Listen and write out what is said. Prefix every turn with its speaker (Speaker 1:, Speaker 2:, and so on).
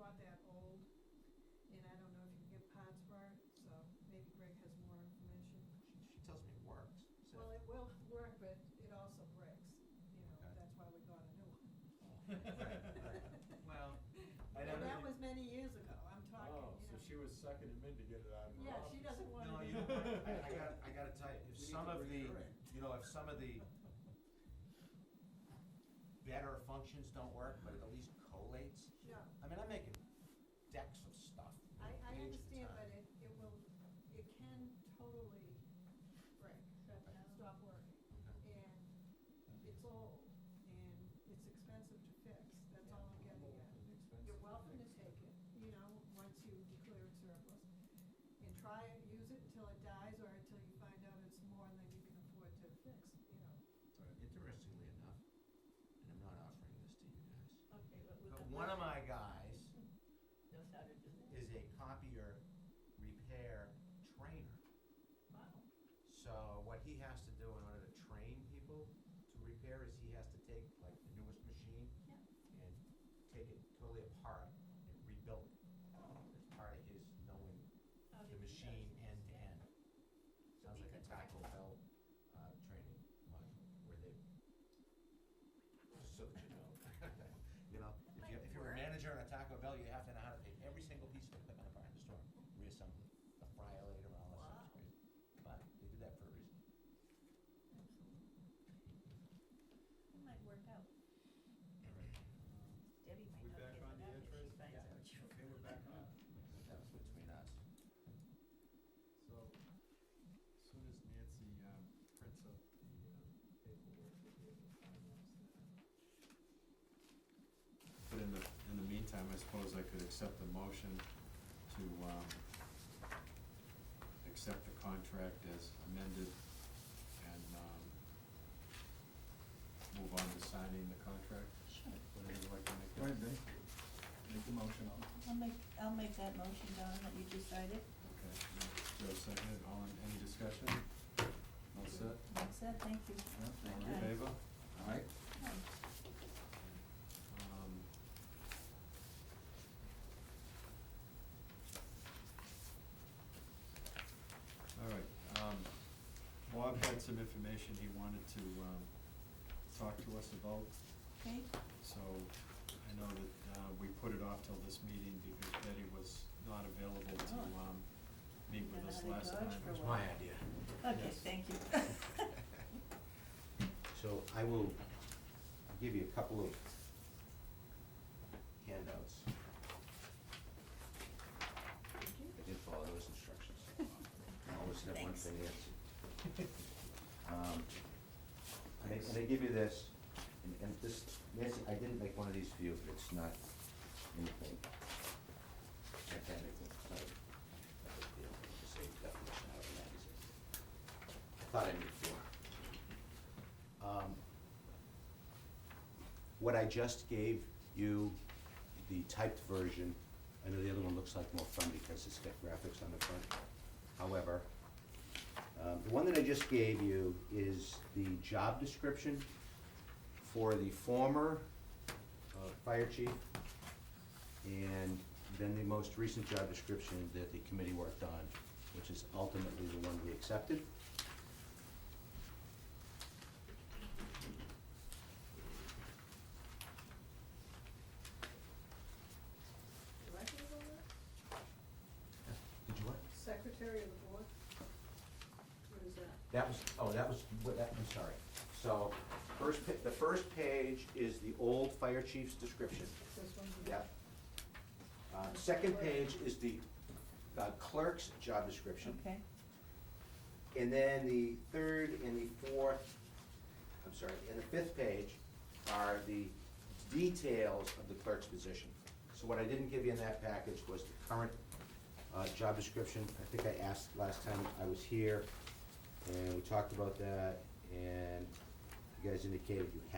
Speaker 1: not that old, and I don't know if you can get parts for it, so maybe Greg has more information.
Speaker 2: She, she tells me it works. So
Speaker 1: Well, it will work, but it also breaks, you know,
Speaker 2: Okay.
Speaker 1: that's why we got a new one.
Speaker 2: well,
Speaker 3: I
Speaker 1: And
Speaker 3: don't
Speaker 1: that
Speaker 3: know.
Speaker 1: was many years ago, I'm talking,
Speaker 3: Oh,
Speaker 1: you
Speaker 3: so
Speaker 1: know.
Speaker 3: she was sucking him in to get it out of her
Speaker 1: Yeah,
Speaker 3: office.
Speaker 1: she doesn't want
Speaker 2: no,
Speaker 1: to.
Speaker 2: you know what? I, I got I got to tell you,
Speaker 3: We
Speaker 2: if
Speaker 3: need
Speaker 2: some
Speaker 3: to
Speaker 2: of the
Speaker 3: bring her in.
Speaker 2: you know if some of the better functions don't work, but it at least collates.
Speaker 1: No,
Speaker 2: I mean, I'm making decks of stuff.
Speaker 1: I, I
Speaker 2: pages at a
Speaker 1: understand,
Speaker 2: time.
Speaker 1: but it, it will, it can totally break, stop working. And it's old, and it's expensive to fix, that's all I'm getting at. You're welcome to take it, you know, once you declare it surplus, and try it, use it until it dies, or until you find out it's more than you can afford to fix, you know.
Speaker 2: Interestingly enough, and I'm not offering this to you guys,
Speaker 4: Okay, but with
Speaker 2: but
Speaker 4: the
Speaker 2: one of
Speaker 4: budget
Speaker 2: my guys
Speaker 4: knows how to do that.
Speaker 2: is a copier repair trainer.
Speaker 4: Wow.
Speaker 2: So what he has to do in order to train people to repair is he has to take like the newest machine
Speaker 4: Yeah.
Speaker 2: and take it totally apart and rebuild it. It's part of his knowing
Speaker 4: How
Speaker 2: the
Speaker 4: did you
Speaker 2: machine
Speaker 4: guys-
Speaker 2: end to end.
Speaker 4: So
Speaker 2: Sounds
Speaker 4: he
Speaker 2: like a
Speaker 4: could
Speaker 2: Taco
Speaker 4: practice.
Speaker 2: Bell uh, training module where they just so that you know. You know, if
Speaker 4: That
Speaker 2: you
Speaker 4: might
Speaker 2: if you're a
Speaker 4: work.
Speaker 2: manager in a Taco Bell, you have to know how to take every single piece of equipment apart in the store, reassemble it, the fryer later, all that stuff.
Speaker 4: Wow.
Speaker 2: It's crazy. But they do that for a reason.
Speaker 4: It might work out. Debbie
Speaker 3: We
Speaker 4: might not
Speaker 3: back
Speaker 4: get
Speaker 3: on the
Speaker 4: it up if she
Speaker 2: Yeah.
Speaker 3: interest? Okay, we're
Speaker 4: finds out you.
Speaker 3: back on.
Speaker 2: That was between us.
Speaker 3: So, as soon as Nancy, um, prints up the, um, paperwork, we'll be able to finalize that. But in the, in the meantime, I suppose I could accept the motion to, um, accept the contract as amended and, um, move on to signing the contract.
Speaker 4: Sure.
Speaker 3: Would anyone like to make that?
Speaker 5: Right, Dave. Make the motion on.
Speaker 4: I'll make, I'll make that motion, Don, that you decided.
Speaker 3: Okay, and Joe seconded, all in, any discussion? All set?
Speaker 4: That's it, thank you.
Speaker 3: All in
Speaker 4: Aye.
Speaker 3: favor?
Speaker 5: Alright.
Speaker 4: Aye.
Speaker 3: Um. All right, um, Bob had some information he wanted to, um, talk to us about,
Speaker 4: Okay,
Speaker 3: so I know that, uh, we put it off till this meeting because Betty was not available to,
Speaker 4: Oh.
Speaker 3: um, meet with
Speaker 4: Don't know
Speaker 3: us
Speaker 4: how to
Speaker 3: last
Speaker 4: dodge
Speaker 3: time.
Speaker 4: for It was my
Speaker 2: idea.
Speaker 4: okay,
Speaker 3: Yes.
Speaker 4: thank you.
Speaker 2: So I will give you a couple of handouts and follow those instructions. Always have one
Speaker 4: Thanks.
Speaker 2: thing answered. Um, and they- And they give you this, and, and this, Nancy, I didn't make one of these for you, but it's not anything technical, it's not a not a big deal, it's just a definition out of a magazine. I thought I knew four. Um, What I just gave you, the typed version, I know the other one looks like more fun because it's got graphics on the front. However, um, the one that I just gave you is the job description for the former uh, fire chief and then the most recent job description that the committee worked on, which is ultimately the one we accepted. Did you what?
Speaker 1: Secretary of the board? What is that?
Speaker 2: That was, oh, that was, what, that, I'm sorry. So, first, pa- the first page is the old fire chief's description.
Speaker 1: This one's. the-
Speaker 2: Yep. Uh, second page is the uh, clerk's job description.
Speaker 4: Okay,
Speaker 2: And then the third and the fourth, I'm sorry, and the fifth page are the details of the clerk's position. So what I didn't give you in that package was the current uh, job description. I think I asked last time I was here, and we talked about that, and you guys indicated you had